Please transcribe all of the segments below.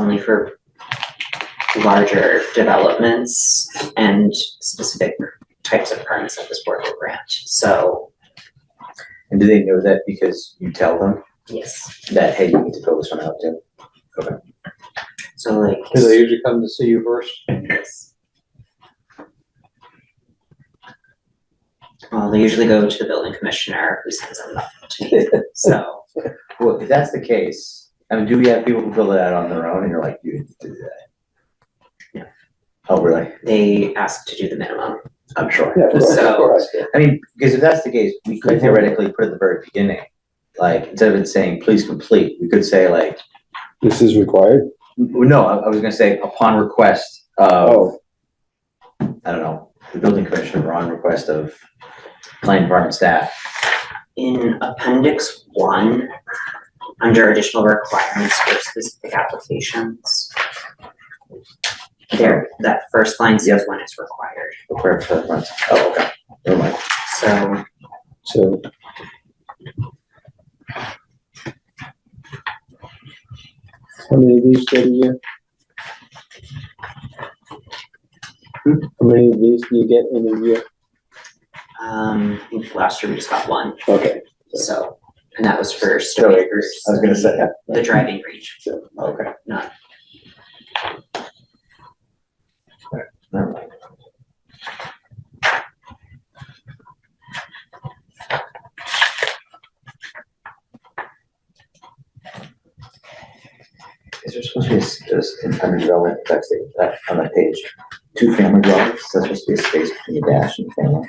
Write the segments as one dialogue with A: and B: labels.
A: only for larger developments and specific types of permits that this board will grant. So,
B: And do they know that because you tell them
A: yes,
B: that, hey, you need to fill this one out too?
A: so like,
C: Do they usually come to see you first?
A: yes. Well, they usually go to the building commissioner who sends them up to me, so,
B: Well, if that's the case, I mean, do we have people who fill it out on their own and you're like, you need to do that?
A: No.
B: Oh, really?
A: they ask to do the minimum.
B: I'm sure.
C: Yeah, of course,
A: So-
C: of course.
B: I mean, because if that's the case, we could theoretically put at the very beginning, like, instead of it saying, please complete, we could say like,
D: This is required?
B: w- no, I, I was gonna say upon request of,
D: Oh.
B: I don't know, the building commissioner or on request of planning department staff.
A: In appendix one, under additional requirements for specific applications. There, that first line says when it's required,
B: require for that. Oh, okay, never mind.
A: so
D: So how many of these get a year? How many of these do you get in a year?
A: um I think last year we just got one,
D: Okay,
A: so, and that was for
B: So, I
A: Stony Acres,
B: was gonna say,
A: the driving range.
B: okay.
A: No.
B: Never mind. Is there supposed to be a, s- just in under development, that's the, that, on that page, two family dwellings, that's supposed to be a space between the dash and family?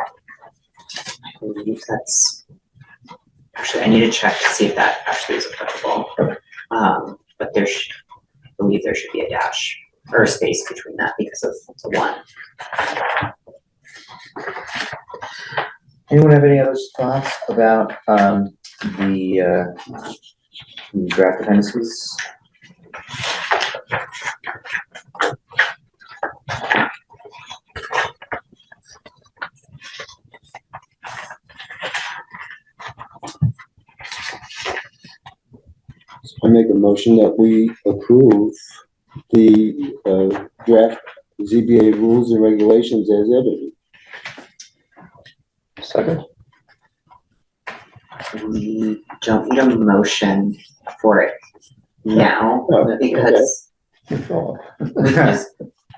A: I believe that's, actually, I need to check to see if that actually is applicable. Um, but there should, I believe there should be a dash or a space between that because of the one.
B: Anyone have any other thoughts about, um, the, uh, the draft appendices?
D: I make a motion that we approve the uh, draft ZBA rules and regulations as edited.
C: Second.
A: We don't need a motion for it now
D: Oh, okay.
A: because we can just,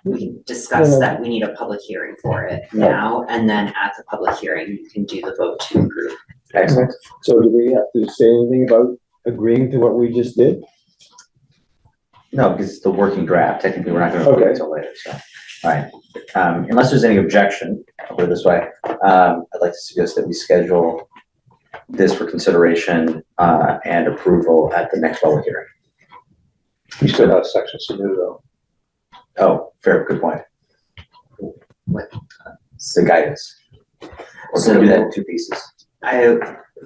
A: we can discuss
D: Yeah.
A: that we need a public hearing for it now. And then at the public hearing, you can do the vote to approve.
B: Excellent.
D: So do we have to say anything about agreeing to what we just did?
B: No, because it's the working draft, technically, we're not gonna approve it
D: Okay.
B: until later, so, alright. Um, unless there's any objection, I'll put it this way, um, I'd like to suggest that we schedule this for consideration, uh, and approval at the next public hearing.
C: You still have sections to do though.
B: Oh, fair, good point. uh, It's the guidance. Or can we do that in two pieces?
A: I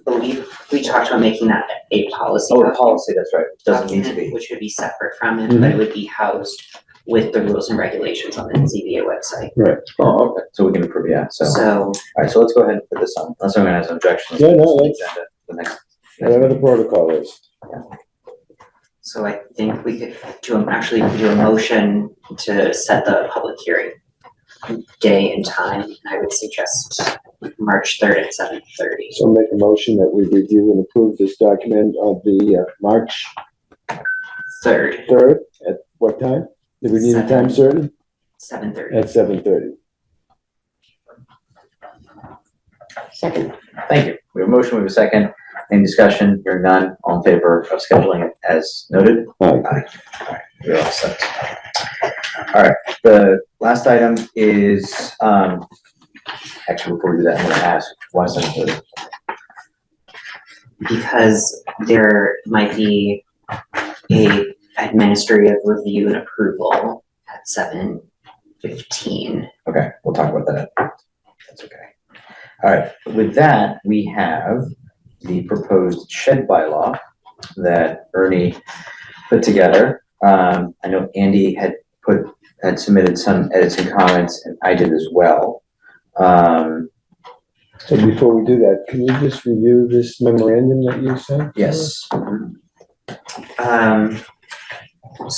A: believe we talked about making that a policy.
B: Oh, the
A: document.
B: policy, that's right, doesn't need to
A: document,
B: be, Mm-hmm.
A: Which would be separate from it, but it would be housed with the rules and regulations on the ZBA website.
D: Oh, okay.
B: so we can approve, yeah, so,
A: So
B: alright, so let's go ahead and put this on, unless anyone has an objection.
D: Yeah, no, that's-
B: Agenda, The next,
D: Whatever the protocol is.
A: So I think we could do, a- actually we could do a motion to set the public hearing day and time. I would suggest March third at seven thirty.
D: So make a motion that we review and approve this document of the uh, March
A: Third,
D: third, at what time? Did we need a time certain?
A: seven thirty.
D: At seven thirty.
B: Thank you. We have a motion, we have a second. Any discussion? Hearing none. All in favor of scheduling it as noted?
D: Aye.
B: Alright, We're all set. All right, the last item is, um, actually, before we do that, I'm gonna ask, why is that included?
A: Because there might be a administrative review and approval at seven fifteen.
B: Okay, we'll talk about that. That's okay. All right, with that, we have the proposed shed bylaw that Ernie put together. Um, I know Andy had put, had submitted some edits and comments, and I did as well. Um,
D: So before we do that, can you just review this memorandum that you sent?
B: yes.
A: Um,